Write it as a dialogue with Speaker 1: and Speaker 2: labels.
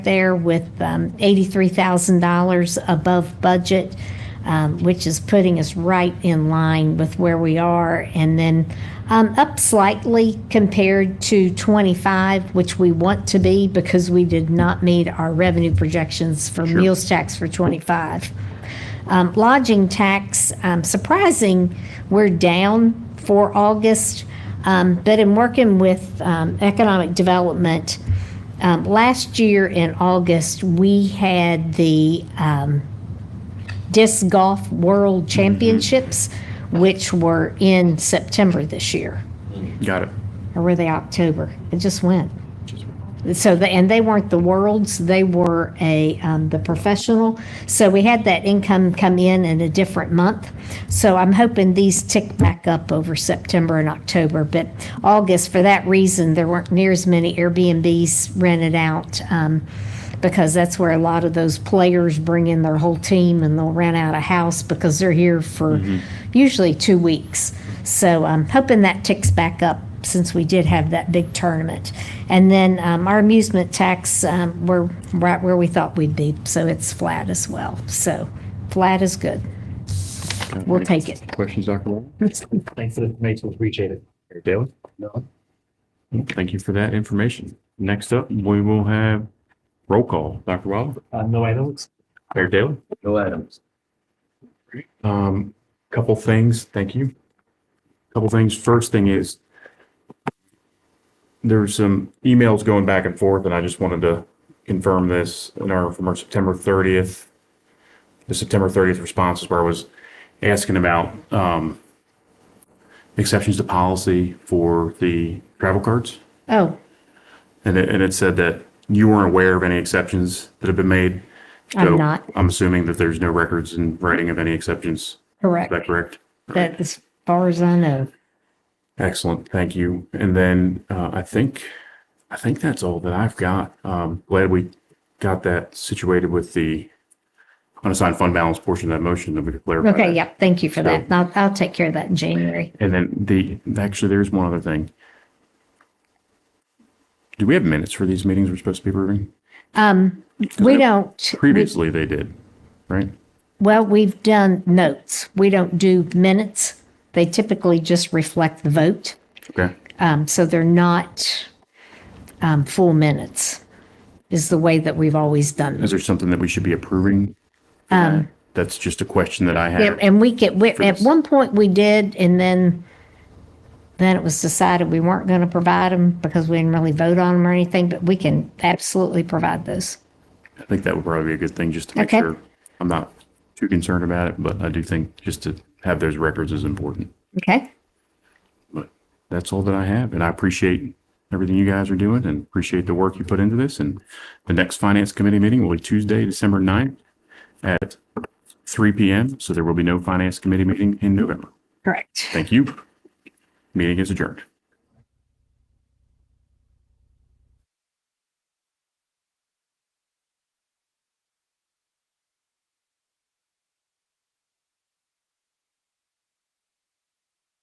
Speaker 1: there with um, $83,000 above budget, um, which is putting us right in line with where we are. And then um, up slightly compared to 25, which we want to be because we did not meet our revenue projections for meals tax for 25. Um, lodging tax, um, surprising, we're down for August. Um, but in working with um, economic development, um, last year in August, we had the um, Disc Golf World Championships, which were in September this year,
Speaker 2: Got it.
Speaker 1: or were they October? It just went. So, the, and they weren't the worlds, they were a, um, the professional. So we had that income come in in a different month. So I'm hoping these tick back up over September and October, but August, for that reason, there weren't near as many Airbnbs rented out. Um, because that's where a lot of those players bring in their whole team and they'll rent out a house because they're here for usually two weeks. So I'm hoping that ticks back up since we did have that big tournament. And then um, our amusement tax, um, we're right where we thought we'd be, so it's flat as well. So flat is good. We'll take it.
Speaker 2: Questions, Dr. Wall?
Speaker 3: Thanks for the information. Appreciate it.
Speaker 2: Daly?
Speaker 3: No.
Speaker 2: Thank you for that information. Next up, we will have roll call. Dr. Waller?
Speaker 3: Uh, no items?
Speaker 2: Mayor Daly?
Speaker 3: No items.
Speaker 2: Um, couple things, thank you. Couple things. First thing is there's some emails going back and forth and I just wanted to confirm this in our, from our September thirtieth. The September thirtieth responses where I was asking about, um, exceptions to policy for the travel cards.
Speaker 1: Oh,
Speaker 2: And it, and it said that you weren't aware of any exceptions that have been made.
Speaker 1: I'm
Speaker 2: So
Speaker 1: not.
Speaker 2: I'm assuming that there's no records in writing of any exceptions. Is
Speaker 1: correct.
Speaker 2: that correct?
Speaker 1: That, as far as I know.
Speaker 2: Excellent. Thank you. And then uh, I think, I think that's all that I've got. Um, glad we got that situated with the unassigned fund balance portion of that motion that we could clarify.
Speaker 1: Okay,
Speaker 2: that.
Speaker 1: yep, thank you for that. I'll, I'll take care of that in January.
Speaker 2: And then the, actually, there's one other thing. Do we have minutes for these meetings we're supposed to be approving?
Speaker 1: We don't,
Speaker 2: Previously, they did, right?
Speaker 1: well, we've done notes. We don't do minutes. They typically just reflect the vote.
Speaker 2: Okay.
Speaker 1: Um, so they're not um, full minutes is the way that we've always done them.
Speaker 2: Is there something that we should be approving? Um. That's just a question that I
Speaker 1: And,
Speaker 2: have.
Speaker 1: and we get, we- at
Speaker 2: this.
Speaker 1: one point we did, and then, then it was decided we weren't going to provide them because we didn't really vote on them or anything, but we can absolutely provide those.
Speaker 2: I think that would probably be a good thing, just to make
Speaker 1: Okay.
Speaker 2: sure. I'm not too concerned about it, but I do think just to have those records is important.
Speaker 1: Okay?
Speaker 2: But that's all that I have, and I appreciate everything you guys are doing and appreciate the work you put into this. And the next Finance Committee meeting will be Tuesday, December 9th at three PM, so there will be no Finance Committee meeting in November.
Speaker 1: Correct.
Speaker 2: Thank you. Meeting is adjourned.